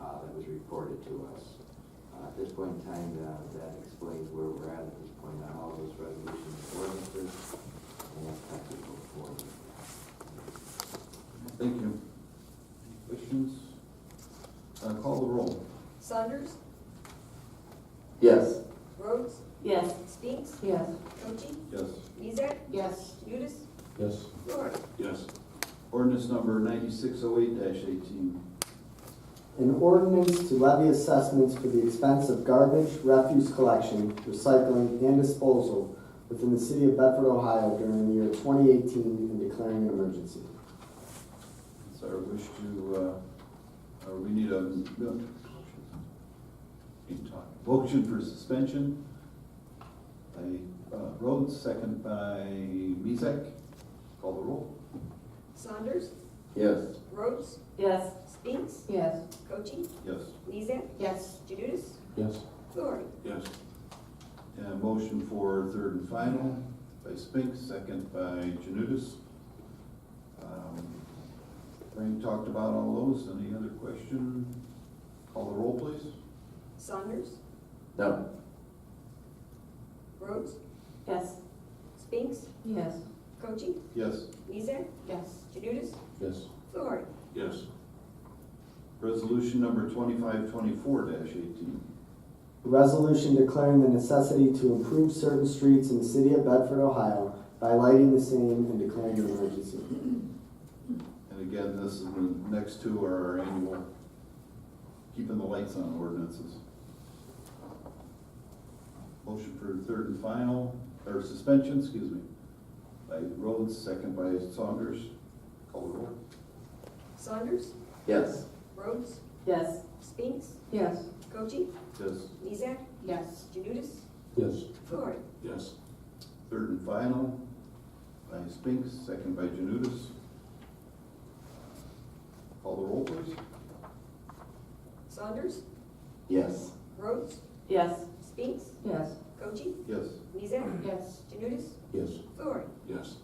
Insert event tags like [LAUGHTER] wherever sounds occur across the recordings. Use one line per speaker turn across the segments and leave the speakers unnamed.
uh, presented to us. Uh, At this point in time, uh, that explains where we're at at this point on all those resolutions and ordinances. And that's how we go forward.
Thank you. Any Questions? Uh, call the roll.
Saunders,
Yes.
Rhodes,
Yes.
Spinks,
Yes.
Cochee,
Yes.
Mizek,
Yes.
Judas,
Yes.
Lorick.
Yes. Ordinance number ninety-six oh eight eighteen.
An ordinance to levy assessments for the expense of garbage, refuse collection, recycling, and disposal within the city of Bedford, Ohio during the year 2018 and declaring an emergency.
It's our wish to, uh, uh, we need a, no, can't talk. motion for suspension by uh, Rhodes, second by Mezek. Call the roll.
Saunders,
Yes.
Rhodes,
Yes.
Spinks,
Yes.
Cochee,
Yes.
Mizek,
Yes.
Judas,
Yes.
Lorick.
Yes. And a motion for third and final by Spinks, second by Janutus. Um, Frank talked about all those. Any other question? Call the roll, please.
Saunders,
No.
Rhodes,
Yes.
Spinks,
Yes.
Cochee,
Yes.
Mizek,
Yes.
Judas,
Yes.
Lorick.
Yes. Resolution number twenty-five twenty-four eighteen.
A resolution declaring the necessity to improve certain streets in the city of Bedford, Ohio by lighting the same and declaring an emergency.
And again, this is the next two are our annual keeping the lights on ordinances. Motion for third and final, or suspension, excuse me, by Rhodes, second by Saunders. Call the roll.
Saunders,
Yes.
Rhodes,
Yes.
Spinks,
Yes.
Cochee,
Yes.
Mizek,
Yes.
Janutus,
Yes.
Lorick.
Yes. Third and final by Spinks, second by Janutus. Call the roll, please.
Saunders,
Yes.
Rhodes,
Yes.
Spinks,
Yes.
Cochee,
Yes.
Mizek,
Yes.
Janutus,
Yes.
Lorick.
Yes.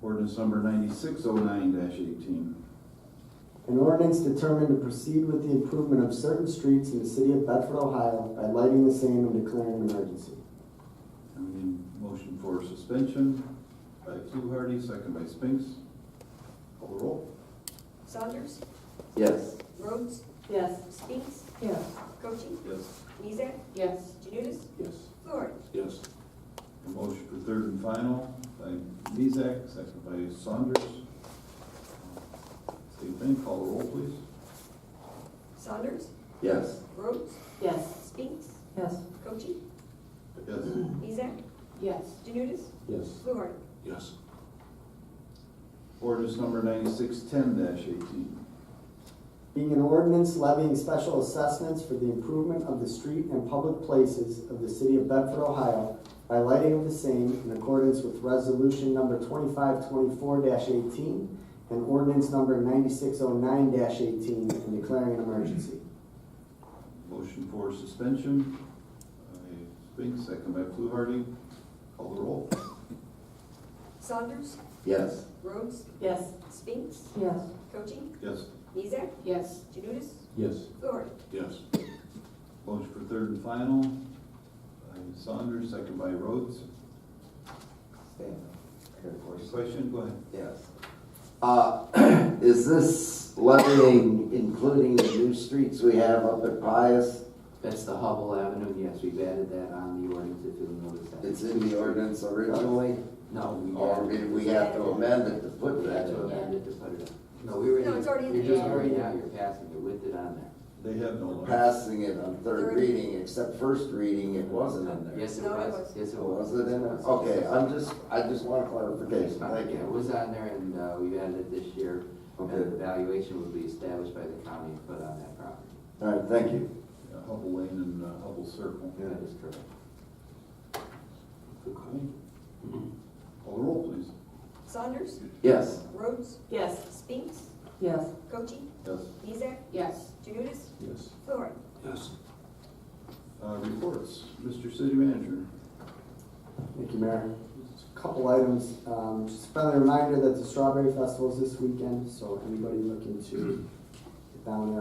Ordinance number ninety-six oh nine eighteen.
An ordinance determined to proceed with the improvement of certain streets in the city of Bedford, Ohio by lighting the same and declaring an emergency.
I need a motion for suspension by Fluharty, second by Spinks. Call the roll.
Saunders,
Yes.
Rhodes,
Yes.
Spinks,
Yes.
Cochee,
Yes.
Mizek,
Yes.
Janutus,
Yes.
Lorick.
Yes. A motion for third and final by Mezak, second by Saunders. Same thing, call the roll, please.
Saunders,
Yes.
Rhodes,
Yes.
Spinks,
Yes.
Cochee,
Yes.
Mizek,
Yes.
Janutus,
Yes.
Lorick.
Yes. Ordinance number ninety-six ten eighteen.
Being an ordinance levying special assessments for the improvement of the street and public places of the city of Bedford, Ohio by lighting of the same in accordance with resolution number twenty-five twenty-four eighteen and ordinance number ninety-six oh nine eighteen and declaring an emergency.
Motion for suspension by Spinks, second by Fluharty. Call the roll.
Saunders,
Yes.
Rhodes,
Yes.
Spinks,
Yes.
Cochee,
Yes.
Mizek,
Yes.
Janutus,
Yes.
Lorick.
Yes. Motion for third and final by Saunders, second by Rhodes.
Stand. Here, of course.
Question, go ahead.
Yes. Uh, [CLEARS THROAT] Is this levying including the new streets we have up at Pius?
That's the Hubble Avenue, yes, we've added that on the ordinance if you'll notice that.
It's in the ordinance originally,
No,
Oh,
we
or
added.
did we have to amend it to put
We had
that
to
in there?
amend it to put it on. No, we were.
No, it's already in
You're
the
just
ad.
already out, you're passing it with it on there.
They have no limits.
Passing it on third
Third.
reading, except first reading, it wasn't in there.
Yes, it
No, it
was,
was.
yes, it was.
Was it in there? uh, Okay, I'm just, I just want clarification, thank
Yeah, it
you.
was on there and, uh, we added it this year.
Okay.
And the valuation would be established by the county and put on that property.
All right, thank you.
Yeah, Hubble Lane and uh, Hubble Circle.
That is correct.
Okay. Call the roll, please.
Saunders,
Yes.
Rhodes,
Yes.
Spinks,
Yes.
Cochee,
Yes.
Mizek,
Yes.
Janutus,
Yes.
Lorick.
Yes. Uh, reports, Mr. City Manager.
Thank you, Mayor. Just a Couple items, um, just a reminder that the Strawberry Festival is this weekend, so anybody looking to get down there,